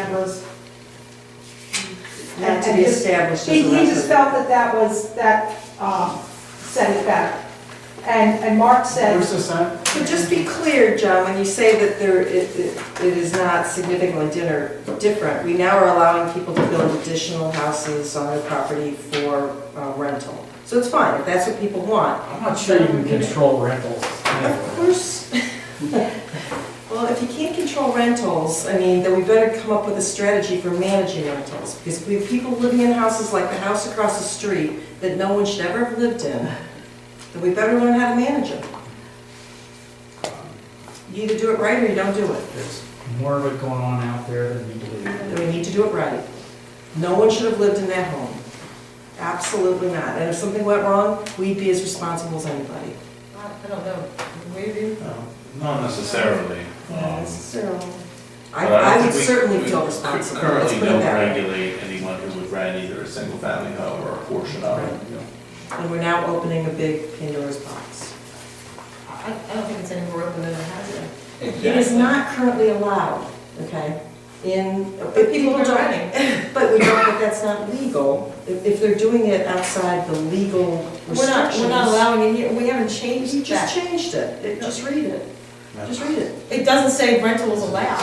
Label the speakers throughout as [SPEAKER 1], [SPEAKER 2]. [SPEAKER 1] members.
[SPEAKER 2] Not to be established
[SPEAKER 1] He,
[SPEAKER 2] as a
[SPEAKER 1] he just felt
[SPEAKER 2] record.
[SPEAKER 1] that that was, that, um, said it better. And, and Mark said,
[SPEAKER 3] Where's this at?
[SPEAKER 2] So just be clear, John, when you say that there, it, it it is not significantly dinner, different, we now are allowing people to build additional houses on their property for uh, rental. So it's fine, if that's what people want.
[SPEAKER 3] I'm not sure you can control rentals.
[SPEAKER 2] Of course. Well, if you can't control rentals, I mean, then we better come up with a strategy for managing rentals. Because we have people living in houses like the house across the street that no one should ever have lived in, then we better learn how to manage them. You either do it right or you don't do it.
[SPEAKER 3] There's more of it going on out there than you believe.
[SPEAKER 2] and we need to do it right. No one should have lived in that home. Absolutely not. And if something went wrong, we'd be as responsible as anybody.
[SPEAKER 4] I don't know, maybe.
[SPEAKER 5] Um, Not necessarily.
[SPEAKER 2] I,
[SPEAKER 5] um, but don't
[SPEAKER 2] I would
[SPEAKER 5] think we-
[SPEAKER 2] certainly
[SPEAKER 5] we
[SPEAKER 2] feel responsible, let's
[SPEAKER 5] Currently
[SPEAKER 2] put it
[SPEAKER 5] don't
[SPEAKER 2] that way.
[SPEAKER 5] regulate anyone who would rent either a single family home or a portion of it.
[SPEAKER 2] And we're now opening a big Pandora's box.
[SPEAKER 4] I, I don't think it's any more open than it has been.
[SPEAKER 2] It is not currently allowed, okay, in, but people
[SPEAKER 4] are
[SPEAKER 2] don't, but we know that that's not legal. If, if they're doing it outside the legal
[SPEAKER 4] We're not,
[SPEAKER 2] restrictions.
[SPEAKER 4] we're not allowing it here, we haven't
[SPEAKER 2] You
[SPEAKER 4] changed
[SPEAKER 2] just
[SPEAKER 4] that.
[SPEAKER 2] changed it, It- just read it, just read it.
[SPEAKER 4] It doesn't say rental is allowed.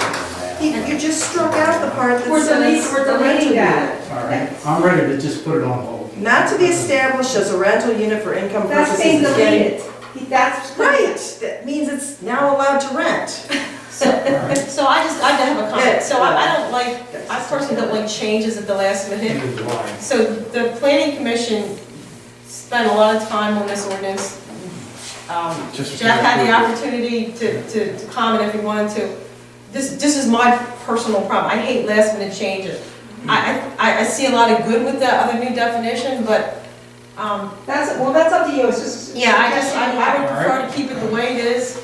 [SPEAKER 2] You you just struck out the part that
[SPEAKER 4] We're deleting-
[SPEAKER 2] says.
[SPEAKER 4] we're deleting that.
[SPEAKER 3] All right, I'm ready to just put it on hold.
[SPEAKER 2] Not to be established as a rental unit for income
[SPEAKER 1] that's
[SPEAKER 2] purposes.
[SPEAKER 1] being
[SPEAKER 2] is getting-
[SPEAKER 1] deleted. He- That's.
[SPEAKER 2] Right, that means it's now allowed to rent.
[SPEAKER 3] All right.
[SPEAKER 4] So I just, I have a
[SPEAKER 2] Yeah.
[SPEAKER 4] comment, so I, I don't like, I personally don't like changes at the last minute.
[SPEAKER 3] End of July.
[SPEAKER 4] So the planning commission spent a lot of time on this ordinance. Um,
[SPEAKER 6] Just-
[SPEAKER 4] Jeff had the opportunity to, to to comment if he wanted to. This, this is my personal problem, I hate last minute changes. I, I, I see a lot of good with the other new definition, but, um,
[SPEAKER 1] That's, well, that's up to you, it's just.
[SPEAKER 4] yeah, I just, I I would
[SPEAKER 3] All
[SPEAKER 4] prefer to keep it the way it is.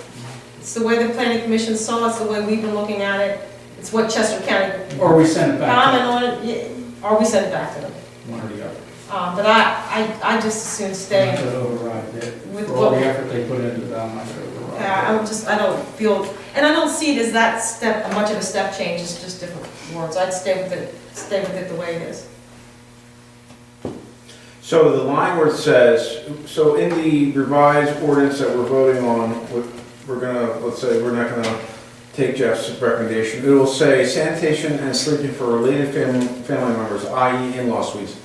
[SPEAKER 4] It's the way the planning commission saw it, it's the way we've been looking at it, it's what Chester County
[SPEAKER 3] Or we send it back,
[SPEAKER 4] commented on it, yeah, or we sent it back to them.
[SPEAKER 3] to one or the other.
[SPEAKER 4] Um, but I, I, I just as soon stay.
[SPEAKER 3] To override it.
[SPEAKER 4] With
[SPEAKER 3] For all the
[SPEAKER 4] what-
[SPEAKER 3] effort they put into that, I'm not gonna
[SPEAKER 4] Uh,
[SPEAKER 3] override it.
[SPEAKER 4] I'm just, I don't feel, and I don't see it as that step, much of a step change, it's just different words. I'd stay with it, stay with it the way it is.
[SPEAKER 6] So the line where it says, so in the revised ordinance that we're voting on, what- we're gonna, let's say, we're not gonna take Jeff's recommendation, it will say sanitation and sleeping for related fam- family members, i.e. in-law suites,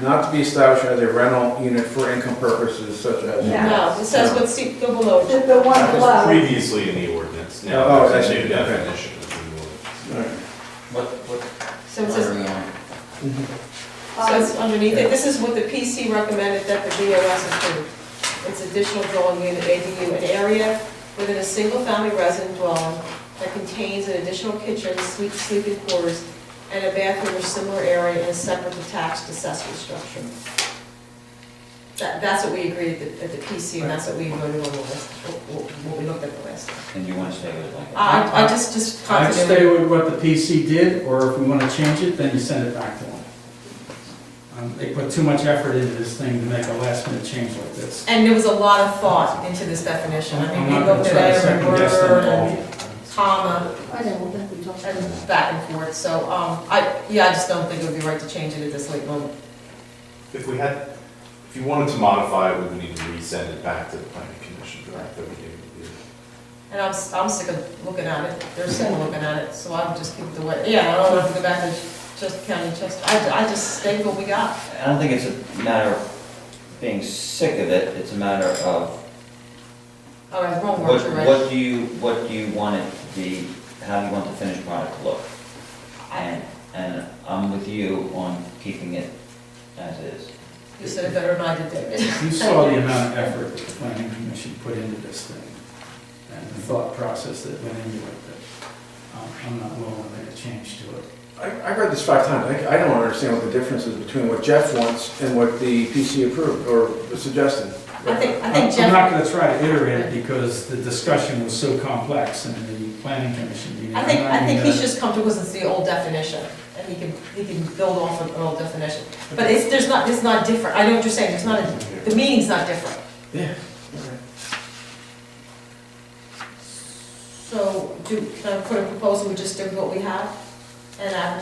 [SPEAKER 6] not to be established as a rental unit for income purposes such as.
[SPEAKER 1] Yeah.
[SPEAKER 4] No, it says what, see, go below.
[SPEAKER 1] The, the one
[SPEAKER 5] That was
[SPEAKER 1] below,
[SPEAKER 5] previously in the ordinance,
[SPEAKER 6] Oh,
[SPEAKER 5] now there's a
[SPEAKER 6] okay.
[SPEAKER 5] new definition. of the ordinance.
[SPEAKER 7] What, what?
[SPEAKER 4] So it says,
[SPEAKER 7] Whatever you want.
[SPEAKER 1] Um,
[SPEAKER 4] so it's underneath it, this is what the PC recommended that the BOS approved. It's additional dwelling unit, ADU, an area within a single-family resident dwelling that contains an additional kitchen, suite, sleeping quarters, and a bathroom or similar area in a separate detached accessory structure. That, that's what we agreed at the, at the PC, and that's what we voted on, last- what, what we looked at the last. time.
[SPEAKER 7] And you want to stay with it like that?
[SPEAKER 4] I, I just, just
[SPEAKER 3] I'd stay
[SPEAKER 4] continuity.
[SPEAKER 3] with what the PC did, or if we want to change it, then you send it back to them. Um, They put too much effort into this thing to make a last minute change like this.
[SPEAKER 4] And there was a lot of thought into this definition, I
[SPEAKER 3] I'm
[SPEAKER 4] mean,
[SPEAKER 3] not
[SPEAKER 4] we
[SPEAKER 3] going
[SPEAKER 4] looked
[SPEAKER 3] to try
[SPEAKER 4] at
[SPEAKER 3] to
[SPEAKER 4] every
[SPEAKER 3] second guess them
[SPEAKER 4] word
[SPEAKER 3] at
[SPEAKER 4] and
[SPEAKER 3] all.
[SPEAKER 4] comma
[SPEAKER 1] I know, but we talked about
[SPEAKER 4] and back and forth, so, um, I, yeah, I just don't think it would be right to change it at this late moment.
[SPEAKER 5] If we had, if you wanted to modify it, we would need to resend it back to the planning commission for that thirty day review.
[SPEAKER 4] And I'm, s- I'm sick of looking at it, they're sick of looking at it, so I would just keep it the way, yeah, I don't want to go back to just county Chester, I, I just stay with what we got.
[SPEAKER 7] I don't think it's a matter of being sick of it, it's a matter of
[SPEAKER 4] All right, wrong
[SPEAKER 7] what,
[SPEAKER 4] word, you're right.
[SPEAKER 7] what do you, what do you want it to be, how do you want the finished product to look?
[SPEAKER 4] I-
[SPEAKER 7] And, and I'm with you on keeping it as is.
[SPEAKER 4] You said it better than I did, David.
[SPEAKER 3] You saw the amount of effort that the planning commission put into this thing, and the thought process that went into it, that um, I'm not willing to make a change to it.
[SPEAKER 6] I, I read this five times, I, I don't understand what the difference is between what Jeff wants and what the PC approved or suggested.
[SPEAKER 4] I think, I
[SPEAKER 3] I'm
[SPEAKER 4] think
[SPEAKER 3] I'm not
[SPEAKER 4] Jeff,
[SPEAKER 3] gonna try to iterate it because the discussion was so complex in the planning commission meeting.
[SPEAKER 4] I think,
[SPEAKER 3] I'm not
[SPEAKER 4] I think
[SPEAKER 3] even
[SPEAKER 4] he's
[SPEAKER 3] gonna-
[SPEAKER 4] just comfortable because it's the old definition, and he can, he can build off of an old definition. But it's, there's not, it's not different, I know what you're saying, it's not, a- the meaning's not different.
[SPEAKER 6] Yeah.
[SPEAKER 4] So, do, can I put a proposal, we just do what we have and advertise